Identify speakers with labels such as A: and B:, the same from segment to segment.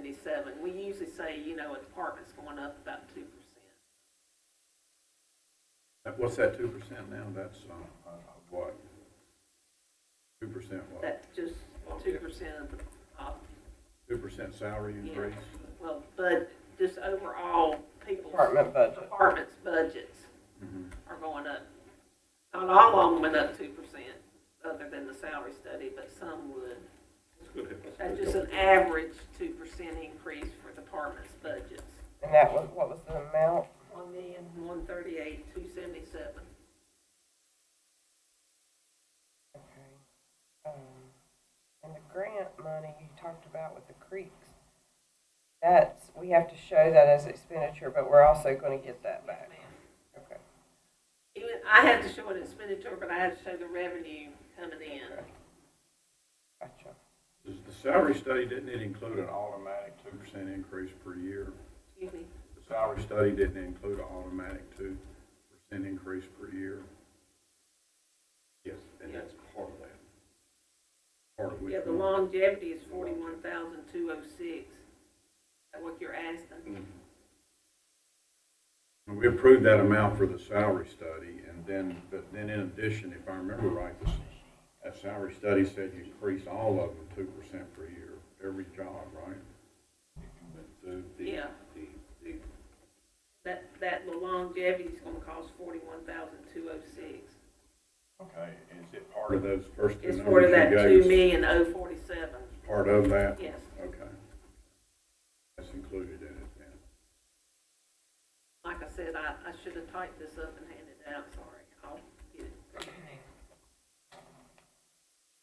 A: fifty-seven. We usually say, you know, a department's going up about two percent.
B: Uh, What's that two percent now? That's, uh, uh, what? Two percent what?
A: That's just two percent of the, uh,
B: Two percent salary
A: yeah,
B: increase?
A: well, but just overall, people's
C: Department budget.
A: departments' budgets
B: Mhm.
A: are going up. Not all of them went up two percent, other than the salary study, but some would. That's just an average two percent increase for departments' budgets.
C: And that was, what was the amount?
A: One million, one thirty-eight, two seventy-seven.
C: Okay. Um, And the grant money you talked about with the creeks, that's, we have to show that as expenditure, but we're also gonna get that back. Okay.
A: Even, I had to show an expenditure, but I had to show the revenue coming in.
C: Gotcha.
B: Does the salary study, didn't it include an automatic two percent increase per year?
A: Excuse me.
B: The salary study didn't include an automatic two percent increase per year? Yes, and that's part of that. Part of which.
A: Yeah, the
B: one?
A: longevity is forty-one thousand, two oh six. That's what you're asking.
B: And We approved that amount for the salary study, and then, but then in addition, if I remember right, this, that salary study said you increase all of them two percent per year, every job, right?
D: So the,
A: Yeah.
D: the, the,
A: That, that the longevity's gonna cost forty-one thousand, two oh six.
B: Okay, is it part of those first two
A: It's for
B: numbers
A: that
B: you
A: two
B: gave? us?
A: million, oh forty-seven,
B: Part of that?
A: yes.
B: Okay. That's included in it then.
A: Like I said, I, I should have typed this up and handed it out, sorry. I'll get it.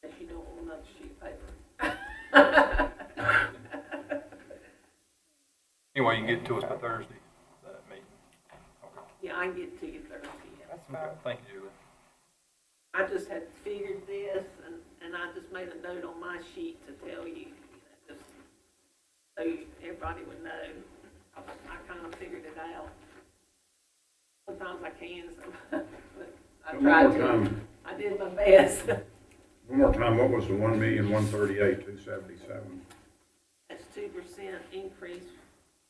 A: If you don't want another sheet of paper.
E: Anyway, you can get to us by Thursday, that meeting.
A: Yeah, I can get it to you Thursday. yeah.
C: That's
E: Okay,
C: fine.
E: thank you, Julie.
A: I just had figured this, and, and I just made a note on my sheet to tell you, you know, just so you- everybody would know. I, I kind of figured it out. Sometimes I can, some, but I
B: One more
A: tried to.
B: time,
A: I did my best.
B: one more time, what was the one million, one thirty-eight, two seventy-seven?
A: That's two percent increase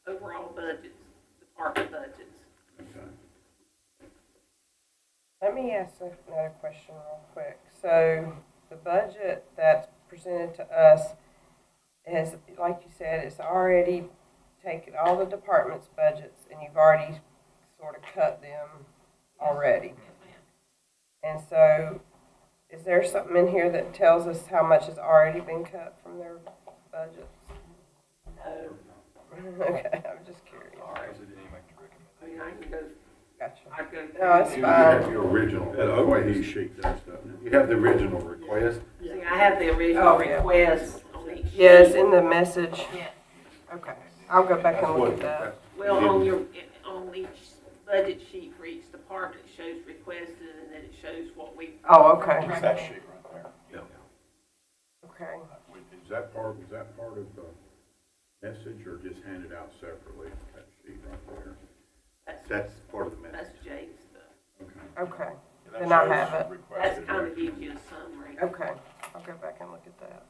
A: overall budgets, department budgets.
B: Okay.
C: Let me ask another question real quick. So the budget that's presented to us is, like you said, it's already taken all the department's budgets and you've already sort of cut them already. And so is there something in here that tells us how much has already been cut from their budgets?
A: No,
C: Okay, I'm just curious.
E: Alright, so did you make your recommendation?
A: I mean, I can go,
C: Gotcha.
A: I go.
C: No, it's
D: you
C: fine.
D: have your original,
B: That OAE sheet does, doesn't it?
D: you have the original request,
A: See, I have the original
C: Oh, yeah.
A: request on each sheet.
C: Yes, in the message. Okay, I'll go back
D: that's
C: and look
D: what,
C: at that.
D: that's
A: Well, on your, on each budget sheet for each department, it shows requested, and then it shows what we,
C: Oh, okay,
E: It's that sheet right there.
C: okay.
B: Is that part, was that part of the message or just handed out separately, that sheet right there?
A: that's,
D: that's part of the message.
A: that's Jake's stuff.
B: Okay.
C: Okay,
E: Yeah,
C: Then I
E: that
C: have
E: shows
A: That's
E: requested
A: kind of
E: action.
A: gives you a summary.
C: okay, I'll go back and look at that.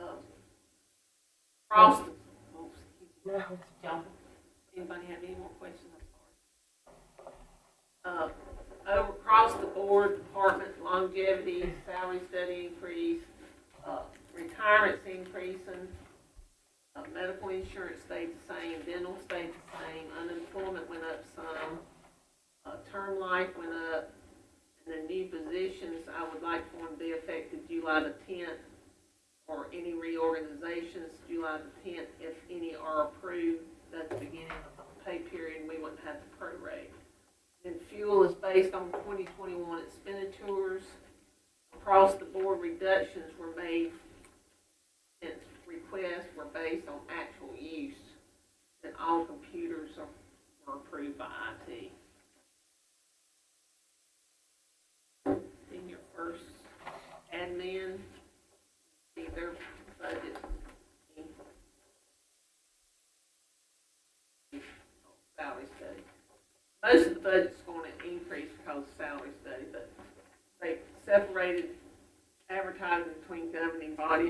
A: Um, Across, the- oh, excuse me,
C: No, it's-
A: y'all, anybody have any more questions? I'm sorry. Uh, over- across the board, department longevity, salary study increase, uh, retirement's increasing, Uh, medical insurance stayed the same, dental stayed the same, unemployment went up some, uh, term life went up, and the new positions, I would like for them to be effective July the tenth, or any reorganizations, July the tenth, if any are approved, that's the beginning of the pay period, we wouldn't have to prorate. And fuel is based on twenty twenty-one expenditures. Across the board reductions were made and requests were based on actual use. And all computers are, were approved by IT. Then your first admin, see their budget. Salary study. Most of the budget's gonna increase because of salary study, but they separated advertising between governing body